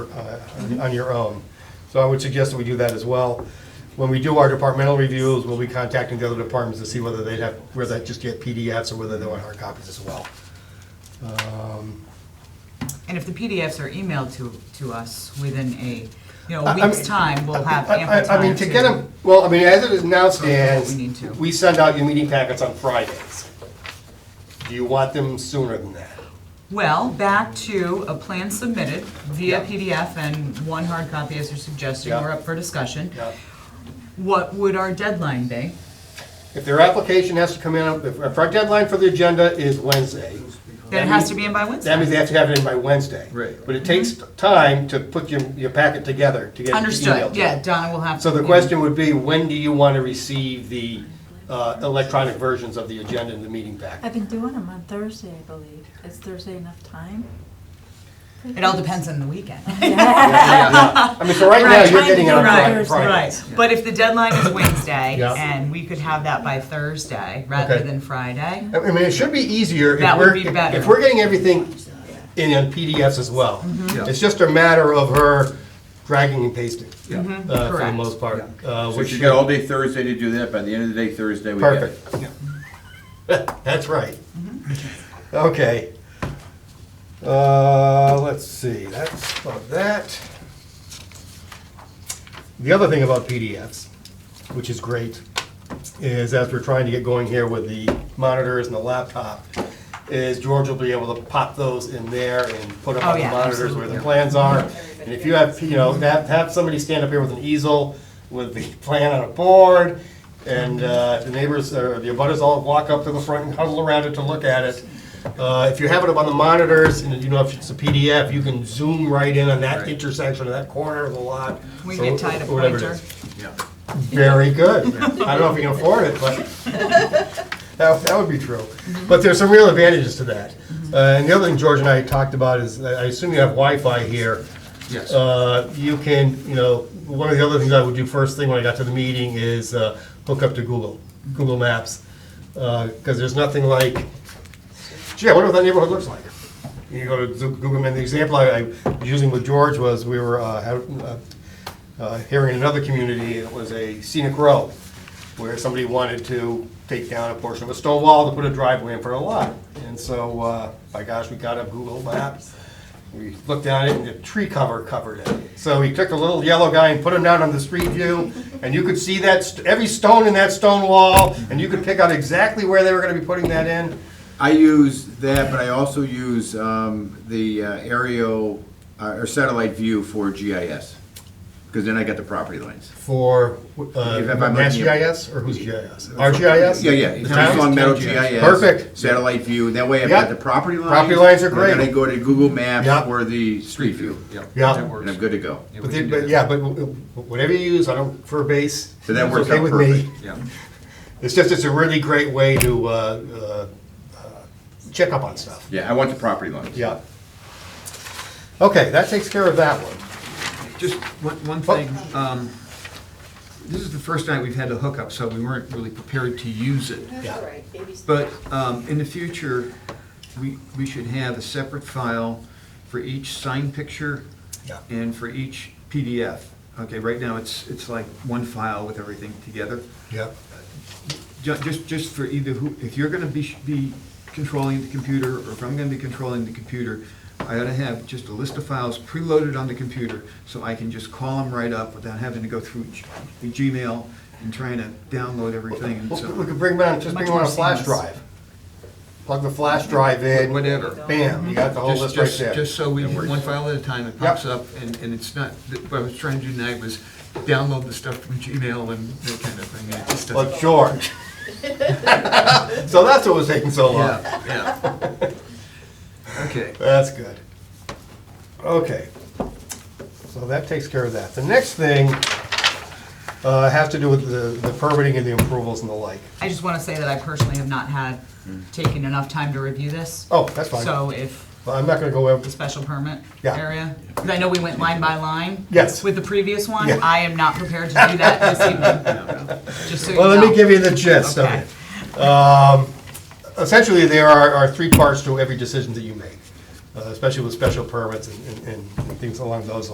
uh, on your own. So I would suggest that we do that as well. When we do our departmental reviews, we'll be contacting the other departments to see whether they'd have, whether they just get PDFs or whether they want hard copies as well. And if the PDFs are emailed to, to us within a, you know, I- I a week's mean- time, we'll have I- I- ample time I mean, to get them, well, I mean, as it is now stands, Oh, We need to. we send out your meeting packets on Fridays. Do you want them sooner than that? Well, back to a plan submitted via Yeah. PDF and one hard copy, as you're suggesting, Yeah. we're up for discussion. Yeah. What would our deadline be? If their application has to come in, if if our deadline for the agenda is Wednesday. Then it has to be in by That Wednesday. means they have to have it in by Wednesday. Right. But it takes time to put your, your packet together to get it emailed Understood, to yeah, them. Donna will have. So the to- question would be, when do you want to receive the uh, electronic versions of the agenda and the meeting packet? I've been doing them on Thursday, I believe. Is Thursday enough time? It all depends on the weekend. I mean, so right now, you're trying to getting it do on right. Friday. Thursday. Friday. Right, but if the deadline is Wednesday, Yeah. and we could have that by Thursday rather Okay. than Friday, I mean, it should be easier if That would we're, be better. if we're getting everything in on PDFs as well. Mm-hmm. Yeah. It's just a matter of her dragging and pasting, Yeah. uh, for the Correct. most part. uh, So which you got all day Thursday to do that, by the end of the day Thursday, we get it. Perfect. That's right. Mm-hmm. Okay. Uh, let's see, that's about that. The other thing about PDFs, which is great, is as we're trying to get going here with the monitors and the laptop, is George will be able to pop those in there and put up Oh, on the yeah, monitors where the plans are. And if you have, you know, have, have somebody stand up here with an easel with the plan on a board, and uh, the neighbors, or the abutters all walk up to the front and huddle around it to look at it. Uh, If you have it up on the monitors, and you know, if it's a PDF, you can zoom right in on that intersection or that corner of the lot. we so could tie the whatever it pointer. is. Very good. I don't know if you can afford it, but that, that would be true. But there's some real advantages to that. Uh, and the other thing George and I talked about is, I I assume you have Wi-Fi here. Yes. Uh, you can, you know, one of the other things I would do first thing when I got to the meeting is uh, hook up to Google, Google Maps. Because there's nothing like, gee, I wonder what that neighborhood looks like. You go to Zoo- Google, and the example I I was using with George was, we were uh, had- uh, uh, here in another community, it was a scenic row, where somebody wanted to take down a portion of a stone wall to put a driveway in front of a lot. And so, uh, by gosh, we got a Google map, we looked at it, and the tree cover covered it. So we took a little yellow guy and put him down on the street view, and you could see that, st- every stone in that stone wall, and you could pick out exactly where they were gonna be putting that in. I use that, but I also use um, the uh, aerial uh, or satellite view for GIS because then I got the property lines. For, uh, If I'm looking Mass at- GIS, or who's GIS? Our GIS? Yeah, yeah. It's The town's? Long Meadow GIS. Perfect. Satellite view. That way I've Yeah. got the property lines. Property lines are and great. Then I go to Google Maps Yeah. or the street view, Yeah. Yeah. That and works. I'm good to go. Yeah, we But, can then- do but that. yeah, but w- w- whatever you use, I don't, for a base, it's So that works okay out with me. perfect. Yeah. It's just, it's a really great way to uh, uh, uh, check up on stuff. Yeah, I want the property lines. Yeah. Okay, that takes care of that one. Just one, one thing, um, this is the first night we've had the hookup, so we weren't really prepared to use it. Yeah. But um, in the future, we, we should have a separate file for each sign picture Yeah. and for each PDF. Okay, right now, it's, it's like one file with everything together. Yeah. Ju- Just, just for either who, if you're gonna be, be controlling the computer, or if I'm gonna be controlling the computer, I ought to have just a list of files preloaded on the computer, so I can just call them right up without having to go through G- the Gmail and trying to download everything and Well, We so, could bring them on, just Much bring them on a more flash seamless. drive. Plug the flash drive in. whatever. Bam, you got the whole Just, list right just, there. just so we, one file at a time, it pops up, and, and it's not, th- what I was trying to do tonight was download the stuff from Gmail and that kind of thing, and it just But doesn't. George. So that's what was taking so long. Yeah, yeah. Okay. That's good. Okay. So that takes care of that. The next thing uh, has to do with the the permitting and the approvals and the like. I just want to say that I personally have not had, taken enough time to review this. Oh, that's fine. So if Well, I'm not going to go over, the special permit Yeah. area, because I know we went line by line. Yes. With the previous one, Yeah. I am not prepared to do that this evening, just so you know. well, let me give you the gist of Okay. it. Um, Essentially, there are are three parts to every decision that you make, uh, especially with special permits and- and and things along those